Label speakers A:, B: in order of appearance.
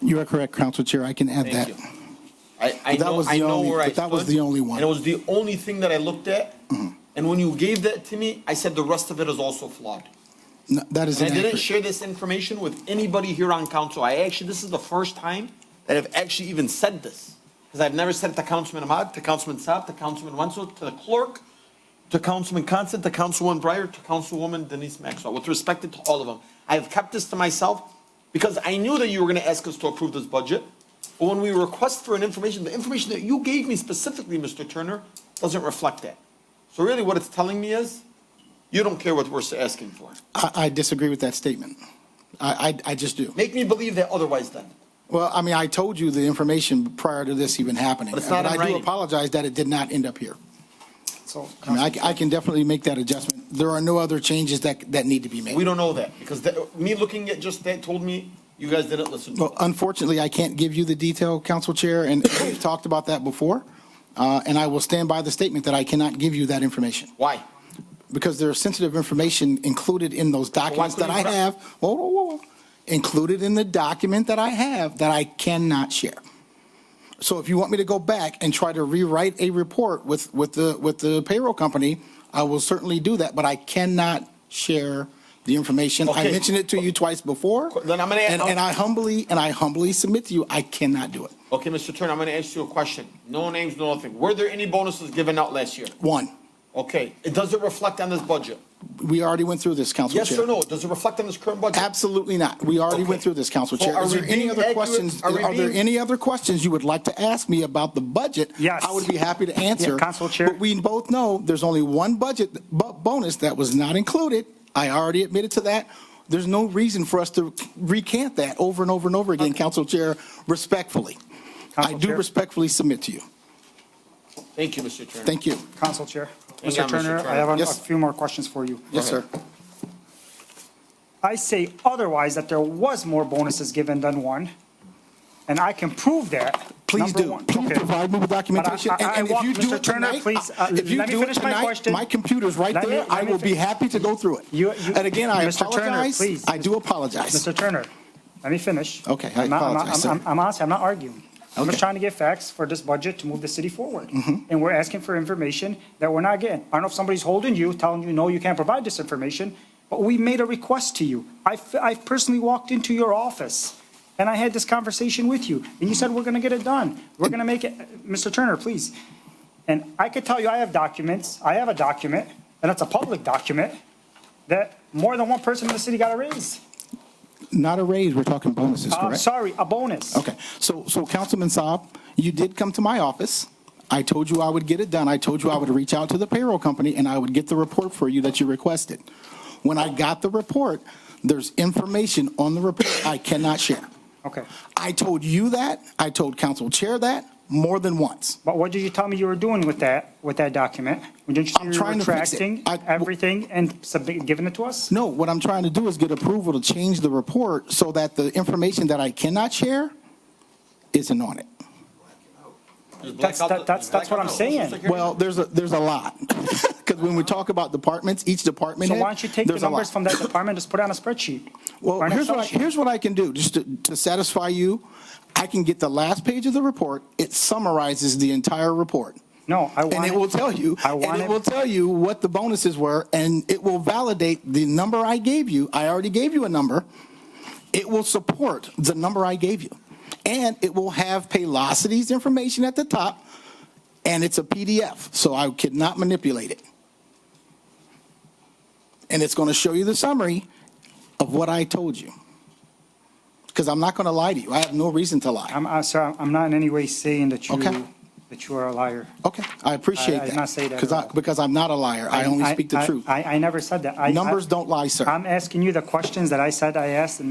A: You are correct, Council Chair. I can add
B: Thank
A: that.
B: you. I, I
A: But that
B: know,
A: was the
B: I know
A: only-
B: where I
A: but that was
B: stood,
A: the only one. Mm-hmm.
B: And it was the only thing that I looked at. And when you gave that to me, I said the rest of it is also flawed.
A: No, That is
B: And I didn't
A: inaccurate.
B: share this information with anybody here on council. I actually, this is the first time that I've actually even said this. Because I've never said it to Councilman Ahmad, to Councilman Saab, to Councilman Wenzel, to the clerk, to Councilman Constant, to Councilwoman Breyer, to Councilwoman Denise Maxwell, with respect to all of them. I have kept this to myself because I knew that you were going to ask us to approve this budget. But when we request for an information, the information that you gave me specifically, Mr. Turner, doesn't reflect that. So really what it's telling me is, you don't care what we're asking for.
A: I I disagree with that statement. I, I I just do.
B: Make me believe that otherwise then.
A: Well, I mean, I told you the information prior to this even happening.
B: But it's not
A: I
B: in
A: do
B: writing.
A: apologize that it did not end up here.
C: So,
A: I mean, I ca- I can definitely make that adjustment. There are no other changes that, that need to be made.
B: We don't know that because that, me looking at just that told me you guys didn't listen.
A: Well, unfortunately, I can't give you the detail, Council Chair, and we've talked about that before. Uh, And I will stand by the statement that I cannot give you that information
B: Why?
A: because there is sensitive information included in those documents that
B: couldn't
A: I
B: you-
A: have. Whoa, whoa, whoa, whoa. Included in the document that I have that I cannot share. So if you want me to go back and try to rewrite a report with, with the, with the payroll company, I will certainly do that, but I cannot share the information. I
B: Okay.
A: mentioned it to you twice before.
B: Then I'm gonna-
A: And, and I humbly, and I humbly submit to you, I cannot do it.
B: Okay, Mr. Turner, I'm gonna ask you a question. No names, no nothing. Were there any bonuses given out last year?
A: One,
B: Okay, it doesn't reflect on this budget.
A: we already went through this, Council
B: Yes
A: Chair.
B: or no? Does it reflect on this current budget?
A: Absolutely not. We already
B: Okay.
A: went through this, Council
B: So
A: Chair.
B: are
A: Is there
B: we
A: any
B: being
A: other
B: accurate?
A: questions?
B: Are we
A: Are there
B: being-
A: any other questions you would like to ask me about the budget?
C: Yes.
A: I would be happy to answer.
C: Yeah, Council Chair.
A: But we both know there's only one budget bu- bonus that was not included. I already admitted to that. There's no reason for us to recant that over and over and over again, Council Chair, respectfully. I
C: Council
A: do
C: Chair.
A: respectfully submit to you.
B: Thank you, Mr. Turner.
A: Thank you.
C: Council Chair.
B: Hang on,
C: Mr.
B: Mr.
C: Turner,
B: Turner.
C: I have a- a
A: Yes.
C: few more questions for you.
A: Yes, sir.
C: I say otherwise that there was more bonuses given than one, and I can prove that.
A: Please
C: Number
A: do.
C: one-
A: Please
C: okay.
A: provide me with documentation.
C: But I- I-
A: And-
C: I
A: And if
C: want-
A: you do
C: Mr.
A: it
C: Turner,
A: tonight,
C: please, uh,
A: I- if you
C: let me
A: do it
C: finish my
A: tonight,
C: question.
A: my computer's right
C: Let me-
A: there.
C: let
A: I
C: me
A: will be
C: fin-
A: happy to go through it.
C: You- you-
A: And again, I
C: Mr. Turner,
A: apologize.
C: please.
A: I do apologize.
C: Mr. Turner, let me finish.
A: Okay, I
C: I'm not- I'm not-
A: apologize, sir.
C: I'm- I'm honestly, I'm not arguing. I'm
A: Okay. Mm-hmm.
C: just trying to get facts for this budget to move the city forward. And we're asking for information that we're not getting. I don't know if somebody's holding you, telling you, no, you can't provide this information, but we made a request to you. I, f- I personally walked into your office and I had this conversation with you, and you said, we're gonna get it done. We're gonna make it, Mr. Turner, please. And I could tell you, I have documents, I have a document, and it's a public document, that more than one person in the city got a raise.
A: Not a raise, we're talking bonuses,
C: I'm
A: correct?
C: Uh, sorry, a bonus.
A: Okay, so, so Councilman Saab, you did come to my office. I told you I would get it done. I told you I would reach out to the payroll company and I would get the report for you that you requested. When I got the report, there's information on the report I cannot share.
C: Okay.
A: I told you that, I told Council Chair that more than once.
C: But what did you tell me you were doing with that, with that document? Didn't you say
A: I'm
C: you were
A: trying to fix it.
C: retracting
A: I-
C: everything and submit- giving it to us?
A: No, what I'm trying to do is get approval to change the report so that the information that I cannot share isn't on it.
B: Just black
C: That's,
B: out the-
C: that- that's, that's what
B: black
C: I'm
B: out the-
C: saying.
A: Well, there's a, there's a lot. Because when we talk about departments, each department
C: So
A: head,
C: why don't you take the
A: there's a lot.
C: numbers from that department, just put it on a spreadsheet?
A: Well,
C: or an
A: here's what, I,
C: Excel sheet?
A: here's what I can do, just to, to satisfy you. I can get the last page of the report. It summarizes the entire report.
C: No, I
A: And
C: want
A: it
C: it-
A: will tell you,
C: I
A: and
C: want
A: it
C: it-
A: will tell you what the bonuses were, and it will validate the number I gave you. I already gave you a number. It will support the number I gave you. And it will have Paylocity's information at the top, and it's a PDF, so I could not manipulate it. And it's going to show you the summary of what I told you. Because I'm not going to lie to you. I have no reason to lie.
C: I'm, I'm sorry, I'm not in any way saying that you,
A: Okay.
C: that you are a liar.
A: Okay, I appreciate
C: I- I
A: that.
C: did not say that at
A: 'Cause I-
C: all.
A: Because I'm not a liar. I only speak the
C: I-
A: truth.
C: I, I never said that. I- I-
A: Numbers don't lie, sir.
C: I'm asking you the questions that I said I asked, and